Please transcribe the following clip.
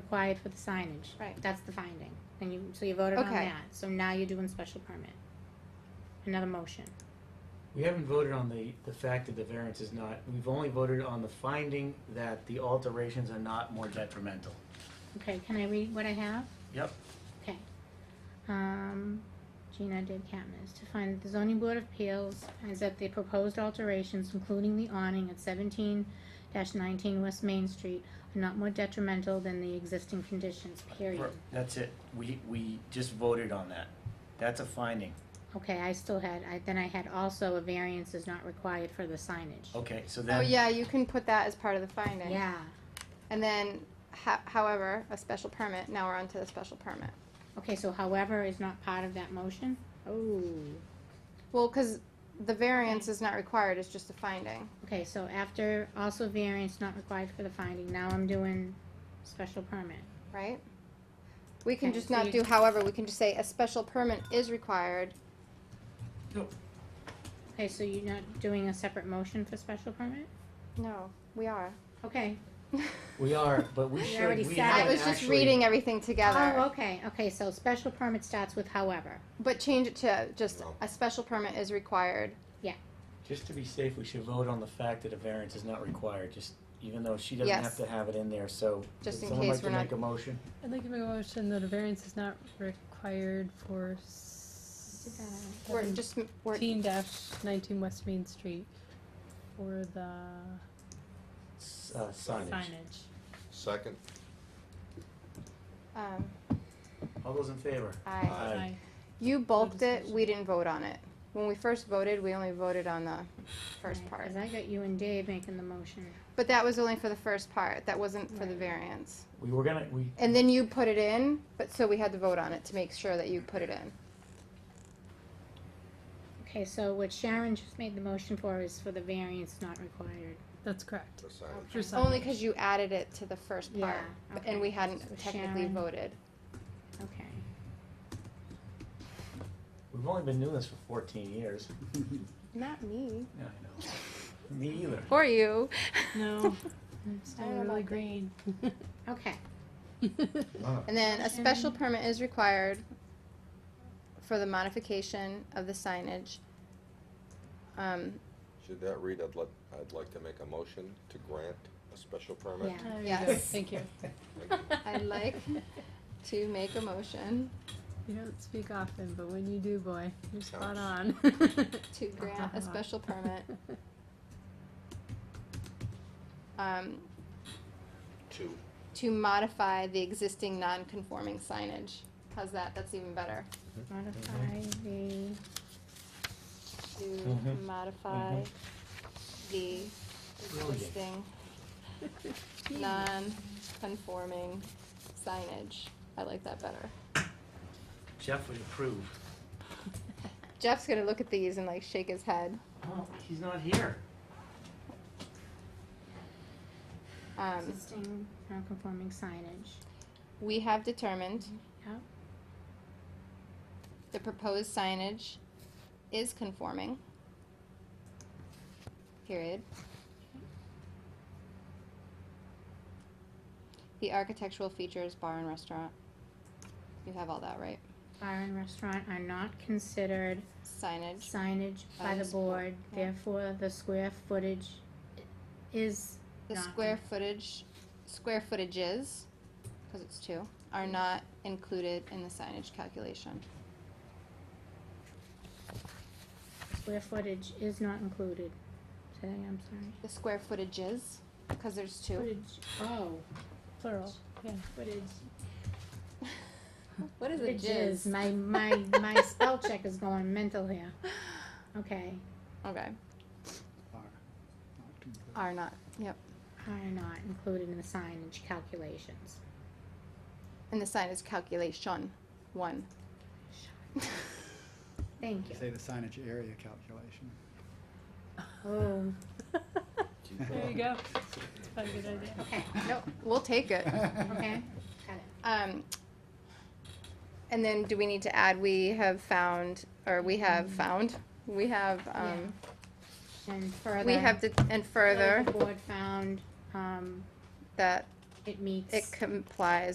required for the signage. Right. That's the finding, and you, so you voted on Okay. that, so now you're doing special permit. Another motion, We haven't voted on the, the fact that the variance is not, we've only voted on the finding that the alterations are not more detrimental. okay, can I read what I have? Yep. Okay. Um, Gina did Katniss. To find that the zoning board of appeals finds that the proposed alterations, including the awning at seventeen nineteen West Main Street, are not more detrimental than the existing conditions, period. That's it. We, we just voted on that. That's a finding. Okay, I still had, I, then I had also a variance is not required for the signage. Okay, so Oh, then, yeah, you can put that as part of the finding. Yeah, And then, ho- however, a special permit, now we're on to the special permit. okay, so however is not part of that motion? Oh, Well, cause the variance is not required, it's just a finding. okay, so after also variance not required for the finding, now I'm doing special permit. right? We can Okay, just so not you- do however, we can just say a special permit is required. Okay, so you're not doing a separate motion for special permit? No, we are. Okay. we are, but we We should, already we said had I it. was just actually- reading everything Oh, together, okay, okay, so special permit starts with however. but change it to just No. a special permit is required. Just to be safe, we should vote on the fact that a variance is not required, just, even though she doesn't have Yes. to have it in there, so. Just would in someone case like to we're not- Make a motion? I'd like to make a motion that a variance is not required for seventeen We're just, we're, dash nineteen West Main Street for the S- Uh, signage. signage. Second, um, All those in favor? I, Aye. you bulked it, discussion. we didn't vote on it. When we first voted, we only voted on the first Right, part. Cause I got you and Dave making the motion. But that was only for the first part, that wasn't for the Right. variance. We were gonna, we, And then you put it in, but so we had to vote on it to make sure that you put it in. Okay, so what Sharon just made the motion for is for the variance not required. That's correct. the signage. For Only signage. because you added it to the first part, Yeah, b- and we okay. hadn't So technically Sharon- voted. Okay. we've only been doing this for fourteen years. Not me. Yeah, I know. Me either. Or you. No, I'm I still don't know really about green. Okay, And then Sharon. a special permit is required for the modification of the signage. Um, Should that read, I'd like, I'd like to make a motion to grant a special permit? yeah. There you Yes. go. Thank you. I'd like to make a motion You don't speak often, but when you do, boy, you're spot on. to grant a special permit, um, Two. to modify the existing non-conforming signage. How's that? That's even better. Modify the, to Mhm. modify Mhm. the Brilliant. existing non-conforming signage. I like that better. Jeff would approve. Jeff's gonna look at these and like shake his head. Oh, he's not here. Um, existing non-conforming signage. we have determined Yep. the proposed signage is conforming. Period. The architectural features, bar and restaurant. You have all that, right? Bar and restaurant are not considered Signage. signage by By the the school, board, yeah. therefore the square footage i- is The not square footage, square footages, because it's two, are not included in the signage calculation. Square footage is not included. Say, I'm sorry. The square footages, because there's two. Footage, oh. Plural, yeah. Footage. What is a Footage jizz? My, my, my spell check is going mental here. Okay, Okay, are not too good. are not, yep, are not included in the signage calculations. in the signage calculation, one. Thank you. Say the signage area calculation. Oh, There you go. It's probably a good idea. okay, No, we'll take it. okay, got it. Um, and then do we need to add, we have found, or we Mm-hmm. have found, we have, um, And further. we have, to and further further, The board found, um, that it meets. it complies